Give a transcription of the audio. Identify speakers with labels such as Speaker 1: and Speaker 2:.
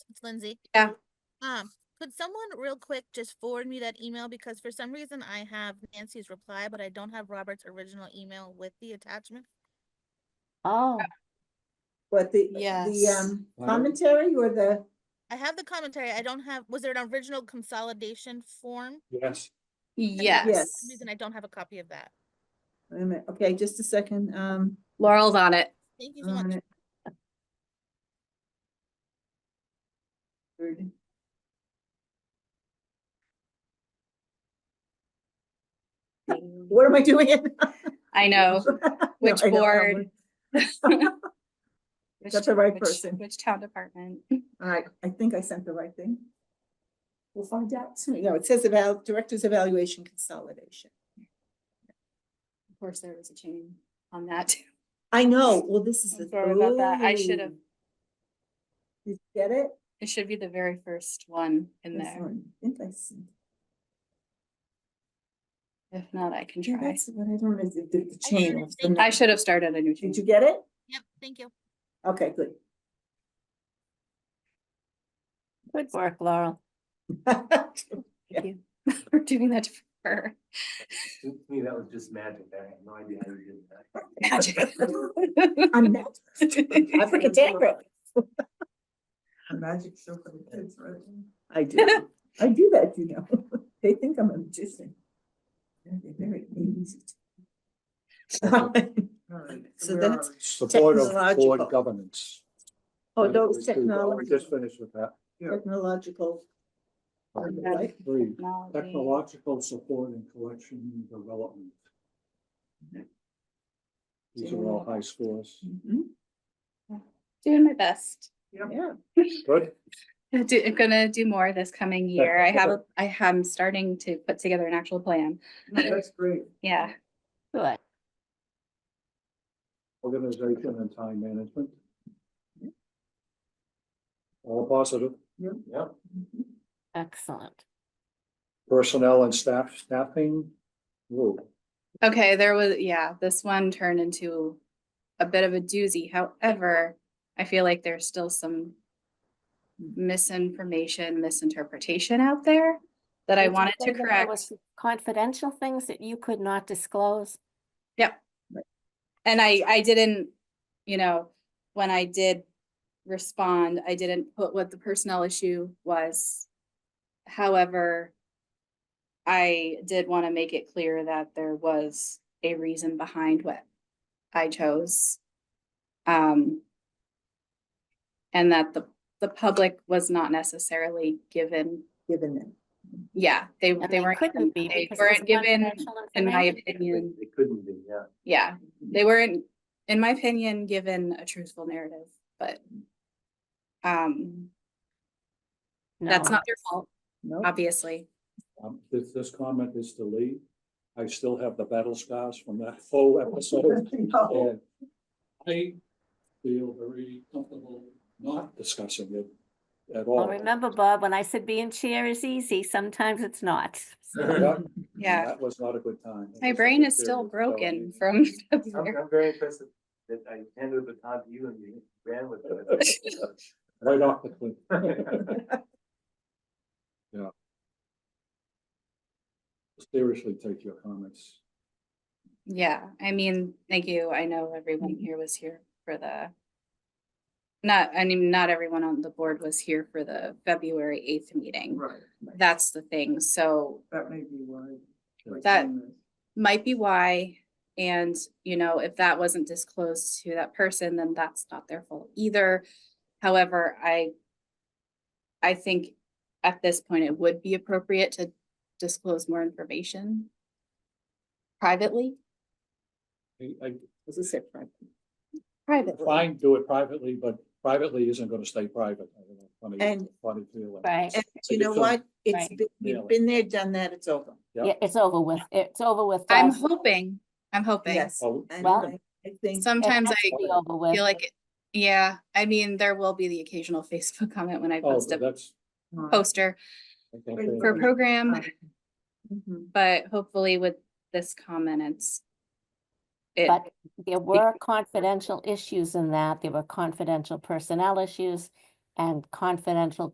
Speaker 1: It's Lindsay.
Speaker 2: Yeah.
Speaker 1: Um, could someone real quick just forward me that email because for some reason I have Nancy's reply, but I don't have Robert's original email with the attachment.
Speaker 3: Oh,
Speaker 4: What the, the
Speaker 2: Yes.
Speaker 4: um commentary or the,
Speaker 1: I have the commentary. I don't have, was there an original consolidation form?
Speaker 5: Yes.
Speaker 1: For
Speaker 2: Yes.
Speaker 1: some reason I don't have a copy of that.
Speaker 4: wait a minute, okay, just a second, um.
Speaker 2: Laurel's on it.
Speaker 1: Thank you so
Speaker 4: on
Speaker 1: much.
Speaker 4: it. Good. What am I doing? it?
Speaker 2: I know. Which
Speaker 4: No, I know, I
Speaker 2: board?
Speaker 4: know.
Speaker 2: Which-
Speaker 4: That's the right
Speaker 2: which-
Speaker 4: person.
Speaker 2: Which town department?
Speaker 4: All right, I think I sent the right thing. We'll find out soon. No, it says about Director's Evaluation Consolidation.
Speaker 2: Of course, there was a chain on that. too.
Speaker 4: I know, well, this is.
Speaker 2: I'm
Speaker 4: the-
Speaker 2: sorry about that. I should've-
Speaker 4: Ooh. Did you get it?
Speaker 2: It should be the very first one in
Speaker 4: This
Speaker 2: there.
Speaker 4: one. I think I sent-
Speaker 2: If not, I can
Speaker 4: Yeah,
Speaker 2: try.
Speaker 4: that's what I don't, know, is it the the
Speaker 1: I
Speaker 4: chain.
Speaker 1: should've
Speaker 4: of the
Speaker 1: taken-
Speaker 2: I
Speaker 4: notes.
Speaker 2: should have started a new chain.
Speaker 4: Did you get it?
Speaker 1: Yep, thank you.
Speaker 4: Okay, good.
Speaker 3: good work, Laurel.
Speaker 4: Yeah.
Speaker 2: Thank you for doing that for her.
Speaker 5: To me, that was just magic. I had no idea how you did that.
Speaker 2: Magic.
Speaker 4: I'm not. I forget that. A magic show for the kids, right? I do, I do that, you know, they think I'm a magician. Yeah, They're very easy. So that's,
Speaker 5: Support of
Speaker 4: Technological.
Speaker 5: board governance.
Speaker 4: oh,
Speaker 5: Article
Speaker 4: those
Speaker 5: two. We
Speaker 4: technology,
Speaker 5: Just finished with that.
Speaker 4: technological.
Speaker 2: Okay.
Speaker 5: Three,
Speaker 2: Technology.
Speaker 5: technological support and collection and development. These are all high scores.
Speaker 4: Mhm,
Speaker 2: Doing my best.
Speaker 4: Yeah,
Speaker 5: Good.
Speaker 2: I do, I'm gonna do more this coming
Speaker 5: Yeah,
Speaker 2: year. I have,
Speaker 5: okay.
Speaker 2: a- I am starting to put together an actual plan.
Speaker 4: that's great.
Speaker 2: Yeah,
Speaker 3: Good.
Speaker 5: Organization and time management. All positive.
Speaker 4: Yeah.
Speaker 5: Yeah.
Speaker 4: Mhm.
Speaker 3: Excellent.
Speaker 5: Personnel and staff, staffing. Whoa.
Speaker 2: okay, there was, yeah, this one turned into a bit of a doozy. However, I feel like there's still some misinformation, misinterpretation out there that I
Speaker 3: Did you
Speaker 2: wanted
Speaker 3: say
Speaker 2: to
Speaker 3: that there
Speaker 2: correct.
Speaker 3: was Confidential things that you could not disclose.
Speaker 2: And I, I didn't, you know, when I did respond, I didn't put what the personnel issue was. However, I did want to make it clear that there was a reason behind what I chose. Um, and that the, the public was not necessarily given,
Speaker 4: Given them.
Speaker 2: yeah, they,
Speaker 3: and
Speaker 2: they weren't,
Speaker 3: Couldn't be.
Speaker 2: given- they
Speaker 3: because it was
Speaker 2: weren't given,
Speaker 3: confidential
Speaker 2: in my
Speaker 3: information.
Speaker 2: opinion,
Speaker 5: It couldn't be, yeah.
Speaker 2: yeah, they weren't, in my opinion, given a truthful narrative, but um, that's
Speaker 3: No.
Speaker 2: not their fault,
Speaker 4: No,
Speaker 2: obviously.
Speaker 5: Um, this, this comment is to leave. I still have the battle scars from that whole episode.
Speaker 4: No.
Speaker 5: and I feel very comfortable not discussing it at all.
Speaker 3: Well, remember, Bob, when I said being chair is easy, sometimes it's not.
Speaker 5: Yeah,
Speaker 2: Yeah.
Speaker 5: Mm-hmm. That was not a good time.
Speaker 2: My brain is still broken from
Speaker 6: I'm, I'm very impressed that- that I handed the baton to you and you ran with it.
Speaker 5: Right off the cliff. Seriously, take your comments.
Speaker 2: Yeah, I mean, thank you. I know everyone here was here for the not, I mean, not everyone on the board was here for the February eighth meeting.
Speaker 4: Right.
Speaker 2: That's the thing. So
Speaker 4: That may be why. like,
Speaker 2: That-
Speaker 4: you know,
Speaker 2: might be why. And, you know, if that wasn't disclosed to that person, then that's not their fault either. However, I I think at this point, it would be appropriate to disclose more information privately,
Speaker 5: I, I
Speaker 4: Was a separate.
Speaker 2: privately.
Speaker 5: fine, do it privately, but privately isn't gonna stay private. I don't know, funny-
Speaker 4: And-
Speaker 5: Funny feeling.
Speaker 3: Right.
Speaker 4: And
Speaker 5: So
Speaker 4: you
Speaker 5: you
Speaker 4: know
Speaker 5: feel-
Speaker 4: what? It's,
Speaker 3: Right.
Speaker 4: been- we've
Speaker 5: Really.
Speaker 4: been there, done that, it's over.
Speaker 5: Yep.
Speaker 3: Yeah, it's over with. It's over with.
Speaker 2: I'm
Speaker 3: guys.
Speaker 2: hoping, I'm hoping.
Speaker 4: Yes.
Speaker 5: Oh,
Speaker 4: And
Speaker 3: Well-
Speaker 4: I I think,
Speaker 3: It
Speaker 2: Sometimes
Speaker 3: has to
Speaker 2: I
Speaker 3: be over with.
Speaker 2: feel like, it- yeah, I mean, there will be the occasional Facebook comment when I
Speaker 5: oh,
Speaker 2: post a
Speaker 5: that's.
Speaker 4: uh,
Speaker 2: poster
Speaker 5: okay.
Speaker 2: for a program,
Speaker 4: mhm.
Speaker 2: Um, but hopefully with this comment, it's it,
Speaker 3: But there were confidential issues in that. There were confidential personnel issues. and confidential